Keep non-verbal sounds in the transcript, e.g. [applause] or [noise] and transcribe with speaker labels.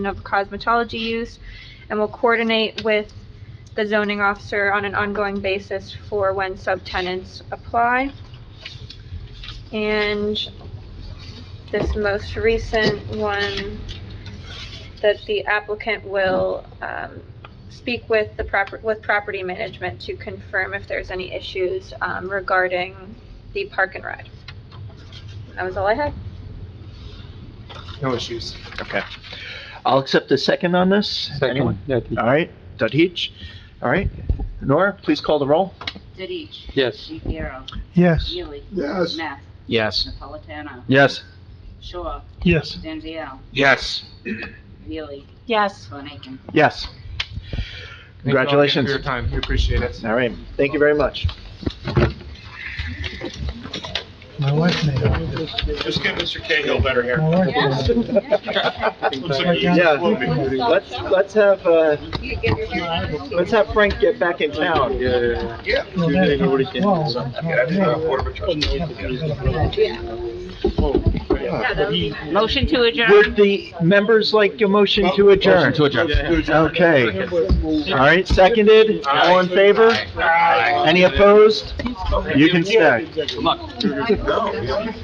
Speaker 1: of cosmetology use, and will coordinate with the zoning officer on an ongoing basis for when subtenants apply. And this most recent one, that the applicant will um, speak with the proper, with property management to confirm if there's any issues um, regarding the park and ride. That was all I had.
Speaker 2: No issues.
Speaker 3: Okay. I'll accept the second on this. Anyone? All right, Dudich. All right. Nora, please call the roll.
Speaker 4: Didich.
Speaker 5: Yes.
Speaker 4: Shapiro.
Speaker 6: Yes.
Speaker 4: Neely.
Speaker 2: Yes.
Speaker 4: Neff.
Speaker 3: Yes.
Speaker 4: Napolitano.
Speaker 3: Yes.
Speaker 4: Shaw.
Speaker 6: Yes.
Speaker 4: Stanzio.
Speaker 2: Yes.
Speaker 4: Neely.
Speaker 1: Yes.
Speaker 4: Von Aiken.
Speaker 3: Yes.
Speaker 2: Thank you all again
Speaker 3: Congratulations.
Speaker 2: For your time, we appreciate it.
Speaker 3: All right. Thank you very much.
Speaker 6: My wife made all this.
Speaker 7: Just give Mr. Cahill better hair.
Speaker 6: My [laughs] wife made all this.
Speaker 7: Looks like he's
Speaker 3: Yeah.
Speaker 7: floating.
Speaker 3: Let's, let's have, uh, let's have Frank get back in town.
Speaker 7: Yeah.
Speaker 6: Well, that's not- well, it's not
Speaker 7: Yeah, that's not a
Speaker 6: me.
Speaker 7: quarter of a trust.
Speaker 4: Motion to
Speaker 3: Would the members like a motion to adjourn? Okay. All right, seconded. All in favor?
Speaker 7: Aye.
Speaker 3: Any opposed? You can stay.
Speaker 7: No.